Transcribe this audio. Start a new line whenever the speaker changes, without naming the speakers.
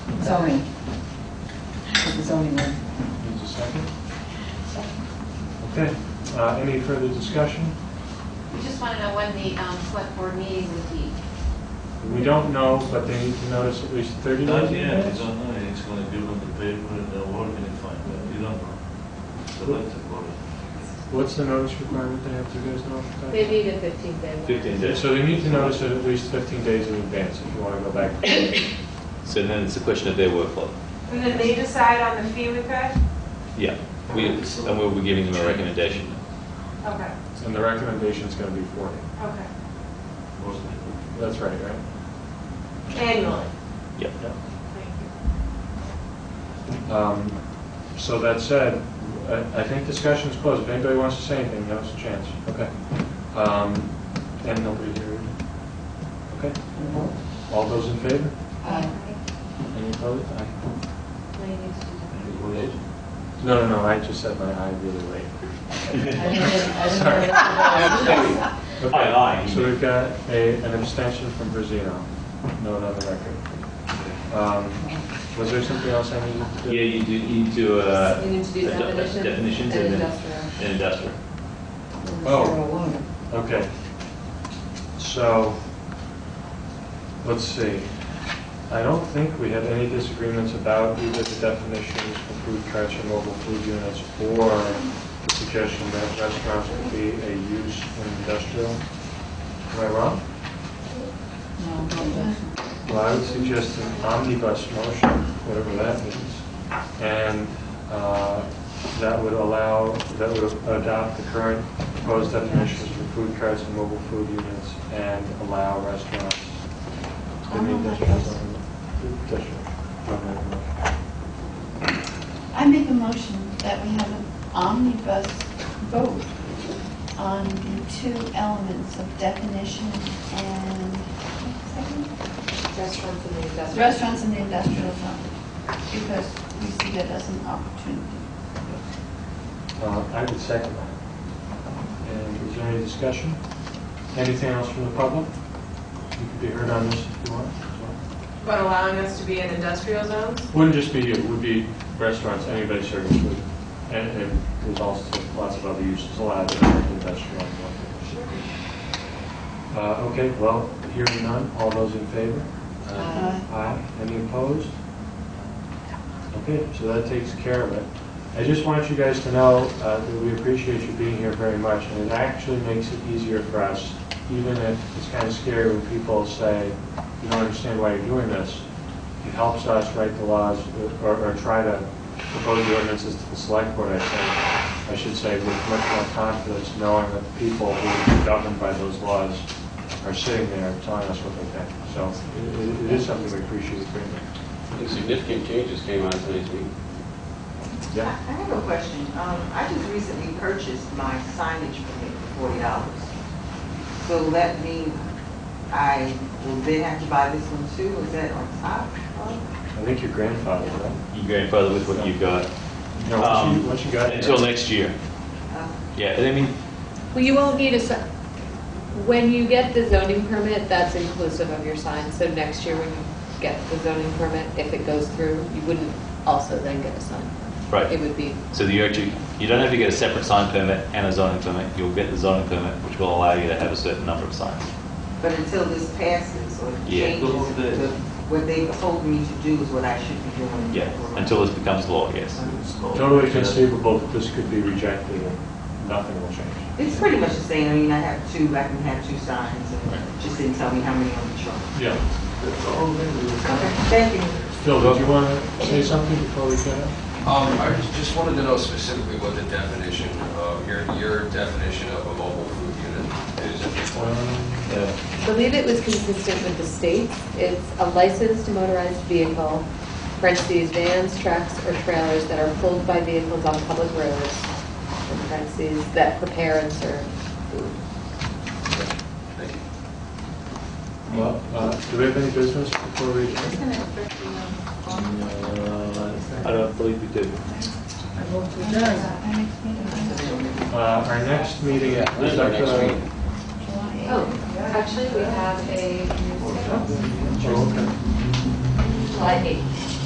zoning. The zoning one.
Needs a second? Okay, uh, any further discussion?
We just want to know when the um, select board meeting would be.
We don't know, but they need to notice at least 30
Not
days in
yet, it's
advance?
on, it's gonna give them the paper and they'll work and find out, you don't know. The letter for it.
What's the notice requirement they have to guys know?
Maybe the 15th day.
Fifteen
Yeah,
days.
So they need to notice it at least 15 days in advance if you want to go back.
So then it's a question of their workflow.
And then they decide on the fee we pay?
Yeah. We, and we'll be giving them a recommendation.
Okay,
And the recommendation's going to be 40.
okay.
Wasn't it?
That's right, right?
Annually?
Yeah.
Yeah.
Thank
Um, So that said, I- I think discussion's closed. If anybody wants to say anything, now's the chance. Okay. Um, And nobody here? Okay. All those in favor?
Um,
Any opposed? Aye.
Anybody else?
No, no, no, I just said my aye really late.
I didn't- I didn't know that.
Okay.
Aye, aye.
So we've got a, an abstention from Brazino, note on the record. Um, Was there something else I needed to do?
Yeah, you do, you do uh,
You need to do
a de-
definition
Definitions
and
and then.
industrial.
and industrial.
Oh.
Sarah Warner.
Okay. So, let's see. I don't think we had any disagreements about either the definitions for food trucks or mobile food units or the suggestion that restaurants could be a use in industrial. Am I wrong?
No, no industrial.
Well, I would suggest an omnibus motion, whatever that means, and uh, that would allow, that would adopt the current proposed definitions for food carts and mobile food units and allow restaurants. in the industrial zone. Industrial.
I make a motion that we have an omnibus vote on the two elements of definition and
Restaurants and the industrial.
restaurants in the industrial zone, because we see that as an opportunity.
Uh, I would second that. And is there any discussion? Anything else from the public? You could be heard on this if you want. as well.
you. But allowing us to be in industrial zones?
Wouldn't just be you, it would be restaurants, anybody serving food. And and there's also lots of other uses allowed in industrial. and whatnot. Uh, Okay, well, hearing none, all those in favor?
Uh,
Aye. Any opposed? Okay, so that takes care of it. I just want you guys to know uh, that we appreciate you being here very much, and it actually makes it easier for us, even if it's kind of scary when people say, you don't understand why you're doing this. It helps us write the laws, or or try to propose the ordinances to the select board, I think, I should say, with much more confidence, knowing that the people who are governed by those laws are sitting there telling us what they think. So it- it it is something we appreciate greatly.
Significant changes came out of tonight's meeting.
Yeah.
I I have a question. Um, I just recently purchased my signage permit for forty dollars. So that means I will then have to buy this one too? Is that on top? of-
I think your grandfather, right?
Your grandfather with what you got.
No, once you,
Um,
once you got
Until
here.
next year.
uh,
Yeah, and I mean,
Well, you won't need a, si- when you get the zoning permit, that's inclusive of your sign. So next year, when you get the zoning permit, if it goes through, you wouldn't also then get a sign.
Right.
It would be,
so you actually, you don't have to get a separate sign permit and a zoning permit. You'll get the zoning permit, which will allow you to have a certain number of signs.
But until this passes or
Yeah.
changes,
Go over there.
the- what they told me to do is what I should be doing.
Yeah, until this becomes law, yes.
It's called-
Totally conceivable that this could be rejected and nothing will change.
It's pretty much the same. I mean, I have two, I can have two signs and just didn't tell me how many on the truck.
Yeah.
That's all they do.
Okay, thank you.
Phil, did you want to say something before we get up?
Um, I just- just wanted to know specifically what the definition of, your, your definition of a mobile food unit is at this point.
Um,
Yeah.
I believe it was consistent with the states. It's a licensed motorized vehicle, parentheses, vans, trucks, or trailers that are pulled by vehicles on public roads, parentheses, that prepare and serve food.
Thank you.
Well, uh, do we have any business before we? adjourn?
I don't believe we do.
I vote to adjourn.
Our next meeting is
Uh, Our next meeting is.
When is our next
uh,
meeting?
July 8th.
Oh, actually, we have a
Oh, okay.
July 8th.